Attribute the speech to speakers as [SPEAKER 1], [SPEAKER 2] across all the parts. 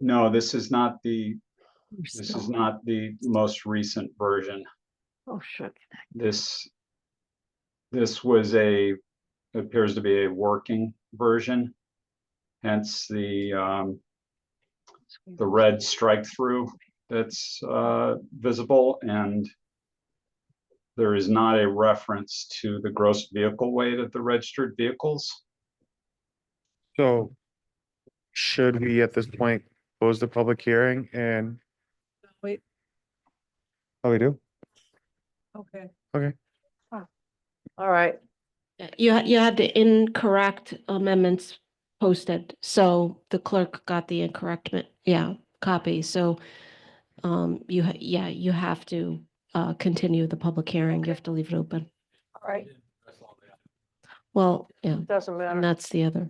[SPEAKER 1] No, this is not the,
[SPEAKER 2] We're
[SPEAKER 1] this
[SPEAKER 2] still-
[SPEAKER 1] is not the most recent version.
[SPEAKER 2] Oh, shit.
[SPEAKER 1] This, this was a, appears to be a working version. Hence the, um, the red strike through that's, uh, visible and there is not a reference to the gross vehicle weight of the registered vehicles.
[SPEAKER 3] So should we at this point close the public hearing and,
[SPEAKER 4] Wait,
[SPEAKER 3] oh, we do?
[SPEAKER 4] okay.
[SPEAKER 3] Okay.
[SPEAKER 4] All right,
[SPEAKER 5] Uh, You, ha- you had the incorrect amendments posted, so the clerk got the incorrect, ma- yeah, copy, so um, you, ha- yeah, you have to uh, continue the public hearing, you have to leave it open.
[SPEAKER 4] all right,
[SPEAKER 5] Well, yeah,
[SPEAKER 4] doesn't
[SPEAKER 5] and
[SPEAKER 4] matter.
[SPEAKER 5] that's the other.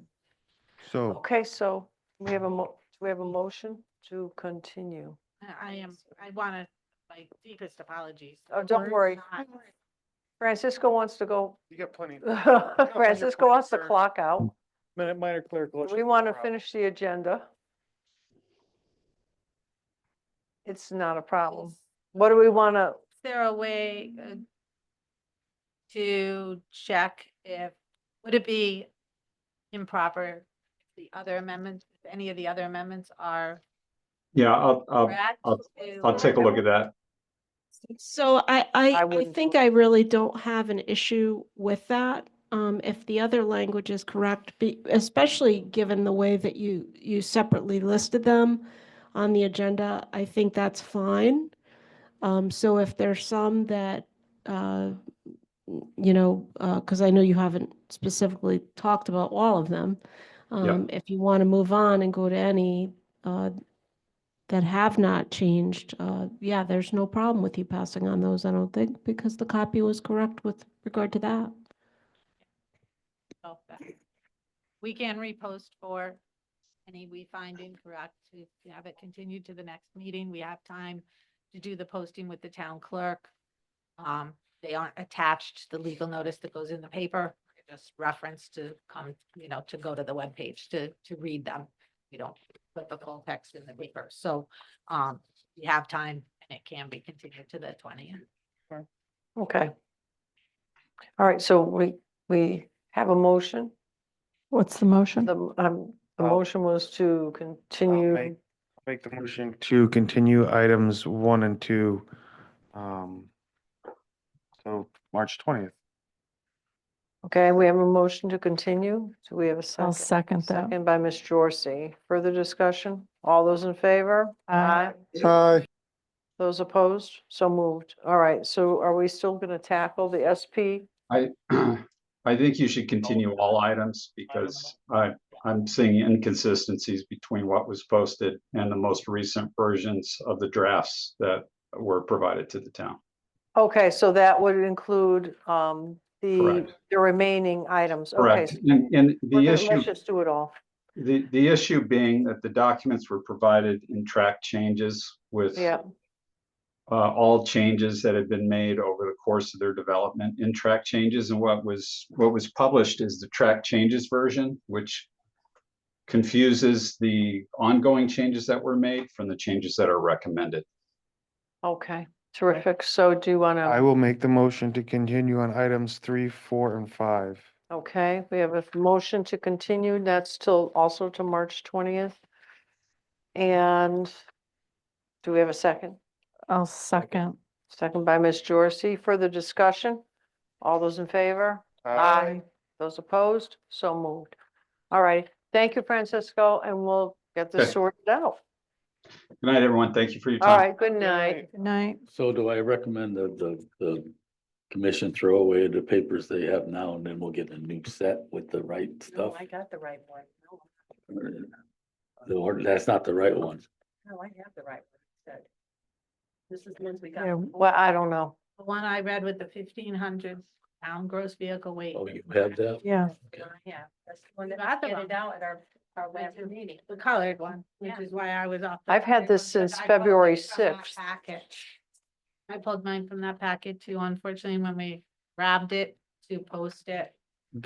[SPEAKER 3] So
[SPEAKER 4] Okay, so we have a mo, we have a motion to continue.
[SPEAKER 6] I I am, I want to, my deepest apologies.
[SPEAKER 4] Oh,
[SPEAKER 6] The
[SPEAKER 4] don't
[SPEAKER 6] word's
[SPEAKER 4] worry.
[SPEAKER 6] not-
[SPEAKER 4] Francisco wants to go,
[SPEAKER 3] you got plenty,
[SPEAKER 4] Francisco wants to clock out.
[SPEAKER 3] minor, minor clerical.
[SPEAKER 4] We want to finish the agenda. It's not a problem.
[SPEAKER 6] Is
[SPEAKER 4] What do we want to,
[SPEAKER 6] there a way uh, to check if, would it be improper if the other amendments, if any of the other amendments are
[SPEAKER 1] Yeah, I'll, I'll,
[SPEAKER 6] correct?
[SPEAKER 1] I'll- I'll take a look at that.
[SPEAKER 5] So I, I, I
[SPEAKER 4] wouldn't
[SPEAKER 5] think
[SPEAKER 4] vote.
[SPEAKER 5] I really don't have an issue with that, um, if the other language is correct, be, especially given the way that you, you separately listed them on the agenda, I think that's fine. Um, so if there's some that, uh, you know, uh, cause I know you haven't specifically talked about all of them. Um, if you want to move on and go to any, uh, that have not changed, uh, yeah, there's no problem with you passing on those, I don't think, because the copy was correct with regard to that.
[SPEAKER 6] Oh, that- We can repost for any we find incorrect to have it continued to the next meeting. We have time to do the posting with the town clerk. Um, they aren't attached to the legal notice that goes in the paper, They're just reference to come, you know, to go to the webpage to, to read them. You don't put the full text in the paper, so, um, we have time and it can be continued to the twentieth.
[SPEAKER 4] okay. All right, so we, we have a motion.
[SPEAKER 2] What's the motion?
[SPEAKER 4] The, m- um, the
[SPEAKER 3] I'll-
[SPEAKER 4] motion was to continue,
[SPEAKER 3] Uh, make- Make the motion to continue items one and two. Um, so March twentieth.
[SPEAKER 4] okay, we have a motion to continue. Do we have a
[SPEAKER 2] I'll
[SPEAKER 4] second?
[SPEAKER 2] second that.
[SPEAKER 4] Second by Ms. Jorsey. Further discussion? All those in favor?
[SPEAKER 2] Aye.
[SPEAKER 3] Hi.
[SPEAKER 4] Those opposed? So moved. All right, so are we still going to tackle the SP?
[SPEAKER 1] I, I think you should continue all items because I, I'm seeing inconsistencies between what was posted and the most recent versions of the drafts that were provided to the town.
[SPEAKER 4] Okay, so that would include um, the,
[SPEAKER 1] Correct.
[SPEAKER 4] the remaining items. Okay,
[SPEAKER 1] Correct.
[SPEAKER 4] so
[SPEAKER 1] And, and
[SPEAKER 4] we're
[SPEAKER 1] the
[SPEAKER 4] gonna-
[SPEAKER 1] issue,
[SPEAKER 4] Let's just do it all.
[SPEAKER 1] the, the issue being that the documents were provided in track changes with
[SPEAKER 4] Yeah,
[SPEAKER 1] uh, all changes that had been made over the course of their development in track changes and what was, what was published is the track changes version, which confuses the ongoing changes that were made from the changes that are recommended.
[SPEAKER 4] okay, terrific. So do you want
[SPEAKER 3] I
[SPEAKER 4] to,
[SPEAKER 3] will make the motion to continue on items three, four, and five.
[SPEAKER 4] okay, we have a motion to continue. That's till also to March 20th. And do we have a second?
[SPEAKER 2] I'll second.
[SPEAKER 4] Second by Ms. Jorsey. Further discussion? All those in favor? Those opposed? So moved. All right. Thank you, Francisco, and we'll get
[SPEAKER 1] Okay.
[SPEAKER 4] this sorted out.
[SPEAKER 1] Good night, everyone. Thank you for your
[SPEAKER 4] All
[SPEAKER 1] time.
[SPEAKER 4] right, good night.
[SPEAKER 2] Good night.
[SPEAKER 7] So do I recommend that the, the commission throw away the papers they have now and then we'll get a new set with the right stuff?
[SPEAKER 6] got the right one.
[SPEAKER 7] The order, that's not the right one.
[SPEAKER 6] No, I have the right one, This is the ones we
[SPEAKER 2] Yeah,
[SPEAKER 4] Well, I don't know.
[SPEAKER 6] The one I read with the fifteen hundred pound gross vehicle weight.
[SPEAKER 7] Oh, you have that?
[SPEAKER 2] Yeah,
[SPEAKER 7] Okay.
[SPEAKER 6] Yeah, that's the one that I handed out at our, our last meeting. The colored one, which is why I was off. the
[SPEAKER 4] I've had
[SPEAKER 6] colored
[SPEAKER 4] this
[SPEAKER 6] one, but
[SPEAKER 4] since
[SPEAKER 6] I pulled it
[SPEAKER 4] February
[SPEAKER 6] from that
[SPEAKER 4] 6th.
[SPEAKER 6] Package. I pulled mine from that packet too, unfortunately, when we grabbed it to post it.